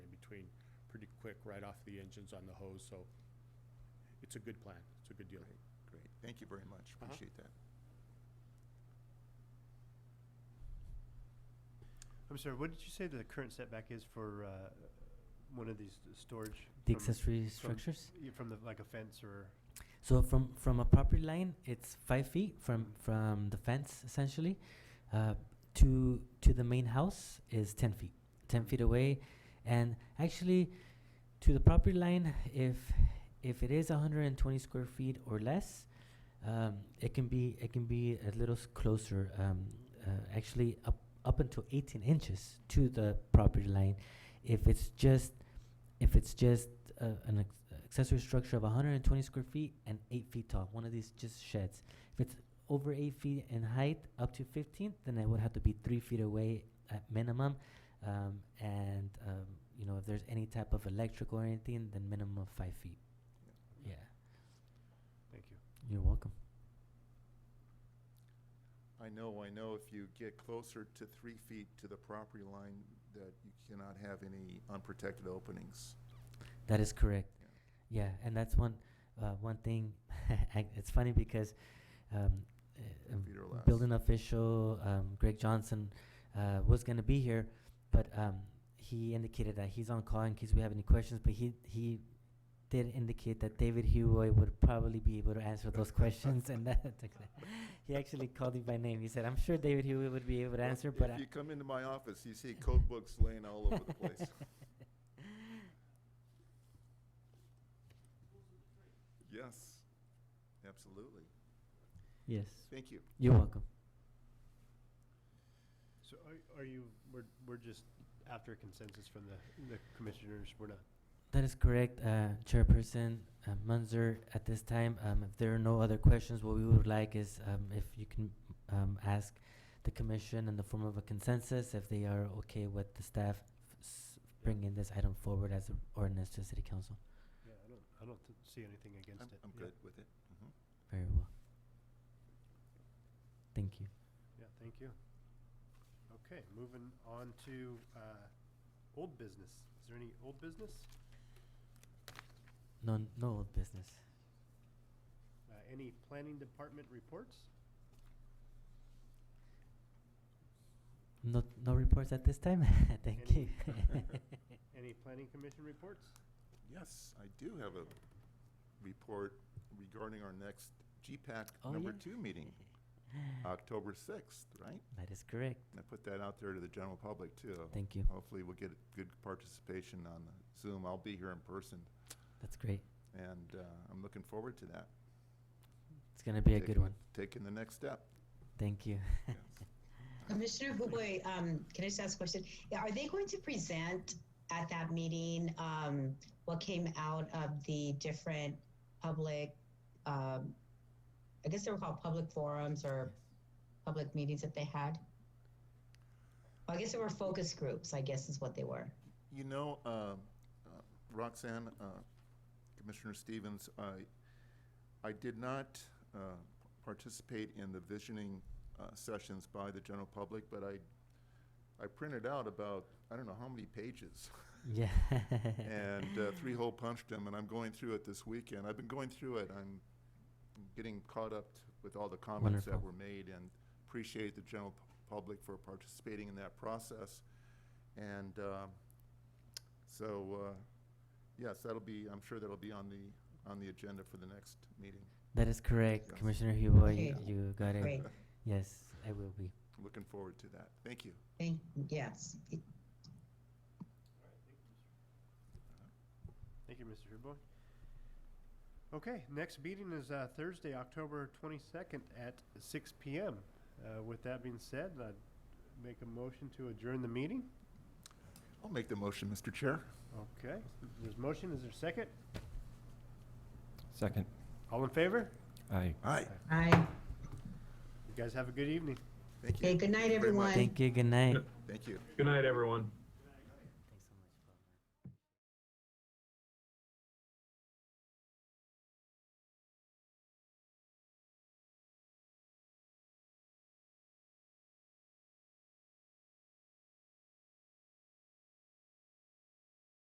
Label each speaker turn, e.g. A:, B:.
A: quick right off the engines on the hose, so it's a good plan, it's a good deal.
B: Great, great. Thank you very much.
C: Uh-huh.
B: Appreciate that.
D: I'm sorry, what did you say the current setback is for uh, one of these storage?
C: The
D: from-
C: accessory
D: from-
C: structures.
D: yeah, From the, like a fence or,
C: So from from a property line, it's five feet from from the fence essentially, uh, to to the main house is ten feet. Ten feet away, and actually, to the property line, if if it is 120 square feet or less, um, it can be it can be a little s- closer. Um, uh, actually, up up until 18 inches to the property line, if it's just if it's just uh, an ex- accessory structure of 120 square feet and 8 feet tall, one of these just sheds. If it's over 8 feet in height, up to 15, then it would have to be 3 feet away at minimum. Um, and, um, you know, if there's any type of electrical or anything, then minimum of 5 feet. Yeah.
D: thank you.
C: You're welcome.
B: I know, I know if you get closer to three feet to the property line, that you cannot have any unprotected openings.
C: That is correct.
B: Yeah.
C: Yeah, and that's one uh, one thing. I- it's funny because um, uh, um,
B: Peter Lass.
C: building official um, Greg Johnson uh, was going to be here, but um, he indicated that he's on call in case we have any questions. But he he did indicate that David Huey would probably be able to answer those questions, and that he actually called him by name. He said, "I'm sure David Huey would be able to answer, but uh,
B: If
C: I,
B: you come into my office, you see code books laying all over the place. Yes, absolutely.
C: yes,
B: Thank you.
C: you're welcome."
D: So are, are you, we're, we're just after consensus from the, the commissioners, we're not,
C: That is correct, uh, Chairperson uh, Munzer. At this time, um, if there are no other questions, what we would like is um, if you can um, ask the commission in the form of a consensus if they are okay with the staff f- s- bringing this item forward as an ordinance to the City Council.
D: yeah, I don't, I don't th- see anything
B: I'm,
D: against it.
B: I'm
D: Yeah,
B: good with it. Mhm.
C: Very well. Thank you.
D: Yeah, thank you. Okay, moving on to uh, old business. Is there any old business?
C: No, no old business.
D: Uh, Any planning department reports?
C: No, no reports at this time. Thank you.
D: Any planning commission reports?
B: Yes, I do have a report regarding our next GPAC
C: Oh,
B: number
C: yeah.
B: two meeting, October 6th, right?
C: that is correct.
B: And I put that out there to the general public, too.
C: Thank you.
B: Hopefully, we'll get good participation on the Zoom. I'll be here in person,
C: That's great.
B: and uh, I'm looking forward to that.
C: It's gonna be a good
B: Taking-
C: one.
B: Taking the next step.
C: Thank you.
B: Yes.
E: Commissioner Huboy, um, can I just ask a question? Yeah, Are they going to present at that meeting, um, what came out of the different public, um, I guess they were called public forums or public meetings that they had? Well, I guess they were focus groups, I guess is what they were.
B: You know, uh, uh, Roxanne, uh, Commissioner Stevens, I, I did not uh, participate in the visioning uh, sessions by the general public, but I, I printed out about, I don't know how many pages,
C: Yeah.
B: and uh, three-hole punched them, and I'm going through it this weekend. I've been going through it. I'm getting caught up with all the comments that
C: Wonderful.
B: were made, and appreciate the general pu- public for participating in that process. And uh, so, uh, yes, that'll be, I'm sure that'll be on the, on the agenda for the next meeting.
C: That is correct,
B: Yes.
C: Commissioner Huboy. you-
E: Okay.
C: You got it.
E: Great.
C: Yes, I will be.
B: Looking forward to that. Thank you.
E: Thank, yes.
D: Thank you, Mr. Herboy. Okay, next meeting is uh, Thursday, October 22nd at 6 PM. Uh, With that being said, I'd make a motion to adjourn the meeting.
B: I'll make the motion, Mr. Chair.
D: Okay, there's motion, is there second?
F: Second.
D: All in favor?
F: Aye.
B: Aye.
E: Aye.
D: You guys have a good evening.
B: Thank you.
E: Okay, good night,
B: Thank you very much.
E: everyone.
C: Thank you. Good night.
B: Thank you.
G: Good night, everyone.